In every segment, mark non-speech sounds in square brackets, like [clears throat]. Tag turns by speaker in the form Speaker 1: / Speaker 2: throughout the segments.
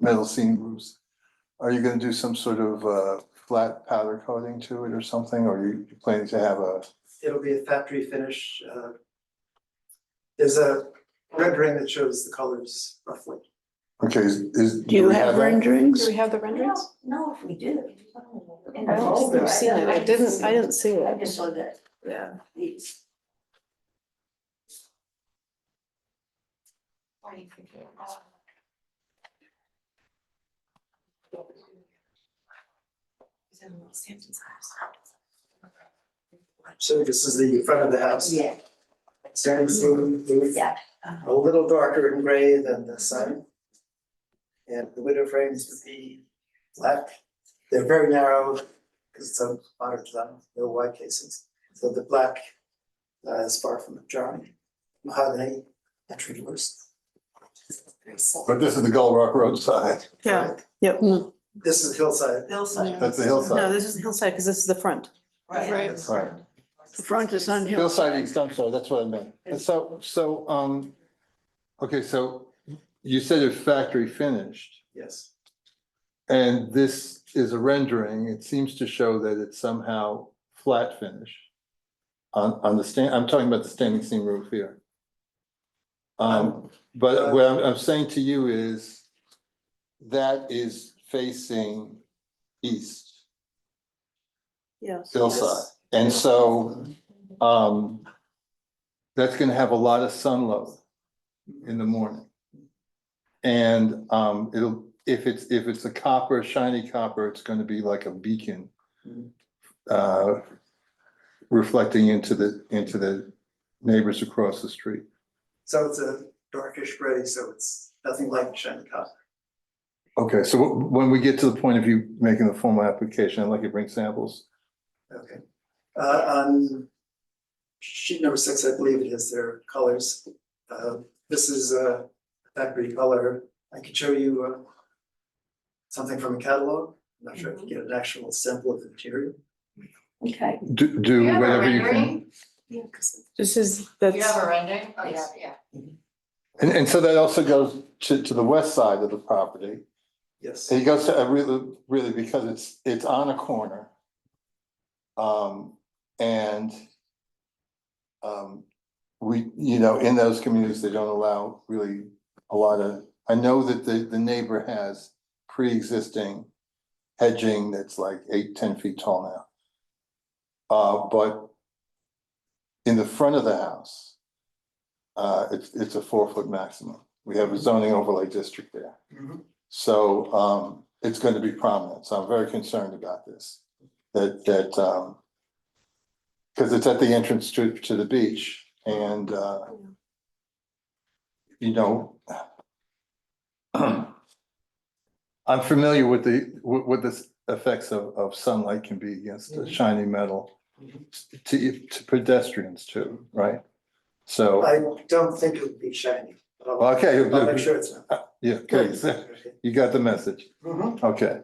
Speaker 1: metal seam roofs. Are you gonna do some sort of uh flat powder coating to it or something, or you you planning to have a?
Speaker 2: It'll be a factory finish, uh. There's a rendering that shows the colors roughly.
Speaker 1: Okay, is is.
Speaker 3: Do you
Speaker 1: we
Speaker 3: have
Speaker 1: that?
Speaker 3: renderings?
Speaker 4: Do we have the renderings?
Speaker 5: No, if we do.
Speaker 3: I don't think I've seen it. I didn't, I didn't see
Speaker 5: I
Speaker 3: it.
Speaker 5: just saw that,
Speaker 3: Yeah.
Speaker 5: these.
Speaker 2: So this is the front of the house.
Speaker 5: Yeah,
Speaker 2: Standing seam roof.
Speaker 5: yeah.
Speaker 2: a little darker in gray than the sun. And the window frames would be black. They're very narrow because it's a modern design, no wide cases. So the black uh, is far from jarring. Mahogany entry doors.
Speaker 1: But this is the Gull Rock roadside, [laughs]
Speaker 6: Yeah, yeah.
Speaker 3: Mm.
Speaker 2: This is hillside.
Speaker 5: Hillside.
Speaker 1: that's the
Speaker 6: No,
Speaker 1: hillside.
Speaker 6: this is hillside because this is the front.
Speaker 5: Right.
Speaker 1: Right.
Speaker 3: The front is on hill.
Speaker 1: Hillside East, I'm sorry, that's what I meant. And so, so, um, okay, so you said it's factory finished.
Speaker 2: Yes,
Speaker 1: And this is a rendering, it seems to show that it's somehow flat finish. On, on the stand, I'm talking about the standing seam roof here. Um, but what I'm, I'm saying to you is that is facing east,
Speaker 3: Yes.
Speaker 1: hillside, and so, um, that's gonna have a lot of sun load in the morning. And um it'll, if it's, if it's a copper, shiny copper, it's gonna be like a beacon. Uh, reflecting into the, into the neighbors across the street.
Speaker 2: so it's a darkish gray, so it's nothing like shiny copper.
Speaker 1: Okay, so wh- when we get to the point of you making the formal application, I'd like you to bring samples.
Speaker 2: Okay. Uh, on sheet number six, I believe it is their colors. Uh, this is a factory color. I could show you uh something from a catalog. I'm not sure
Speaker 3: Mm-hmm.
Speaker 2: if you get an actual sample of the material.
Speaker 5: Okay.
Speaker 1: Do, do
Speaker 4: You have a
Speaker 1: whatever you can.
Speaker 4: rendering?
Speaker 6: This is,
Speaker 4: You have
Speaker 6: that's,
Speaker 4: a rendering? Oh, yeah, yeah.
Speaker 1: And and so that also goes to to the west side of the property.
Speaker 2: Yes,
Speaker 1: It goes to, uh, really, really, because it's, it's on a corner. Um, and um, we, you know, in those communities, they don't allow really a lot of, I know that the, the neighbor has pre-existing hedging that's like eight, ten feet tall now. Uh, but in the front of the house, uh, it's, it's a four-foot maximum. We have a zoning overlay district there.
Speaker 2: Mm-hmm.
Speaker 1: So um it's going to be prominent, so I'm very concerned about this, that that um. Cause it's at the entrance to to the beach and uh. You know. [clears throat] I'm familiar with the, with with the effects of of sunlight can be against
Speaker 2: Mm-hmm.
Speaker 1: the shiny metal. To to pedestrians too, right? So,
Speaker 2: I don't think it would be shiny. but I'll-
Speaker 1: okay,
Speaker 2: I'll make sure it's not.
Speaker 1: yeah, okay,
Speaker 2: Okay.
Speaker 1: [laughs] you got the message,
Speaker 2: Mhm.
Speaker 1: okay.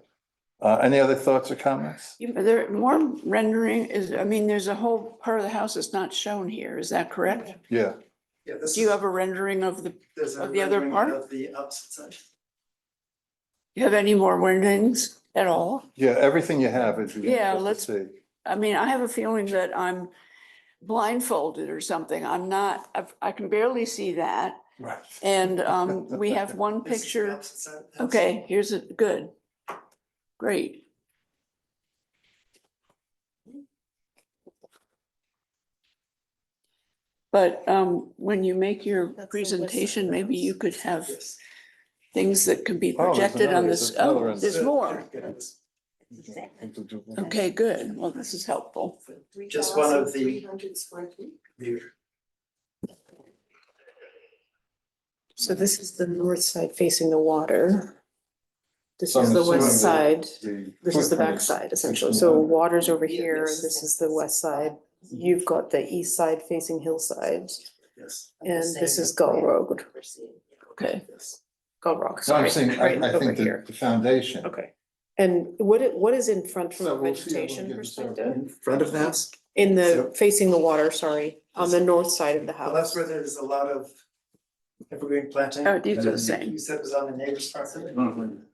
Speaker 1: Uh, any other thoughts or comments?
Speaker 3: You- There, more rendering is, I mean, there's a whole part of the house that's not shown here. Is that correct?
Speaker 1: Yeah.
Speaker 2: Yeah, this
Speaker 3: Do you
Speaker 2: is-
Speaker 3: have a rendering of the,
Speaker 2: there's a
Speaker 3: of the other
Speaker 2: rendering
Speaker 3: part?
Speaker 2: Of the opposite side.
Speaker 3: you have any more renderings at all?
Speaker 1: Yeah, everything you have is.
Speaker 3: Yeah,
Speaker 1: let's
Speaker 3: let's-
Speaker 1: see.
Speaker 3: I mean, I have a feeling that I'm blindfolded or something. I'm not, I've- I can barely see that.
Speaker 1: Right.
Speaker 3: And um, we have one
Speaker 2: This is the
Speaker 3: picture.
Speaker 2: opposite side of the house.
Speaker 3: Okay, here's a, good. Great. But um, when you make your
Speaker 6: That's the west side
Speaker 3: presentation,
Speaker 6: of the
Speaker 3: maybe you
Speaker 6: house.
Speaker 3: could have
Speaker 2: Yes.
Speaker 3: things that can be
Speaker 1: Oh, there's
Speaker 3: projected on
Speaker 1: another-
Speaker 3: this.
Speaker 1: there's another
Speaker 3: Oh,
Speaker 1: end.
Speaker 3: there's
Speaker 2: So,
Speaker 3: more.
Speaker 2: yeah,
Speaker 3: Okay, good. Well, this is helpful.
Speaker 2: Just one of the-
Speaker 5: square feet.
Speaker 2: here.
Speaker 6: so this is the north side facing the water. This
Speaker 1: So
Speaker 6: is
Speaker 1: I'm
Speaker 6: the west
Speaker 1: assuming
Speaker 6: side, this is the back side essentially, so
Speaker 1: 1600.
Speaker 6: water's over
Speaker 5: Yeah,
Speaker 6: here,
Speaker 5: this-
Speaker 6: this is the west side.
Speaker 1: Mm-hmm.
Speaker 6: You've got the east side facing hillside,
Speaker 2: Yes.
Speaker 6: and this is Gull Road,
Speaker 3: Okay.
Speaker 2: Yes.
Speaker 6: Gull Rock,
Speaker 1: So I'm
Speaker 6: sorry,
Speaker 1: saying, I,
Speaker 6: right
Speaker 1: I
Speaker 6: over
Speaker 1: think the,
Speaker 6: here.
Speaker 1: the foundation.
Speaker 6: Okay, and what, i- what is in front from
Speaker 1: So
Speaker 6: a
Speaker 1: we'll see, we'll
Speaker 6: vegetation
Speaker 1: get the survey.
Speaker 6: perspective?
Speaker 2: front of the house?
Speaker 6: In
Speaker 2: So-
Speaker 6: the, facing the water, sorry, on the north side of the
Speaker 2: Well, that's
Speaker 6: house.
Speaker 2: where there's a lot of evergreen planting.
Speaker 3: Oh, these are the same.
Speaker 2: You said it was on the neighbor's property?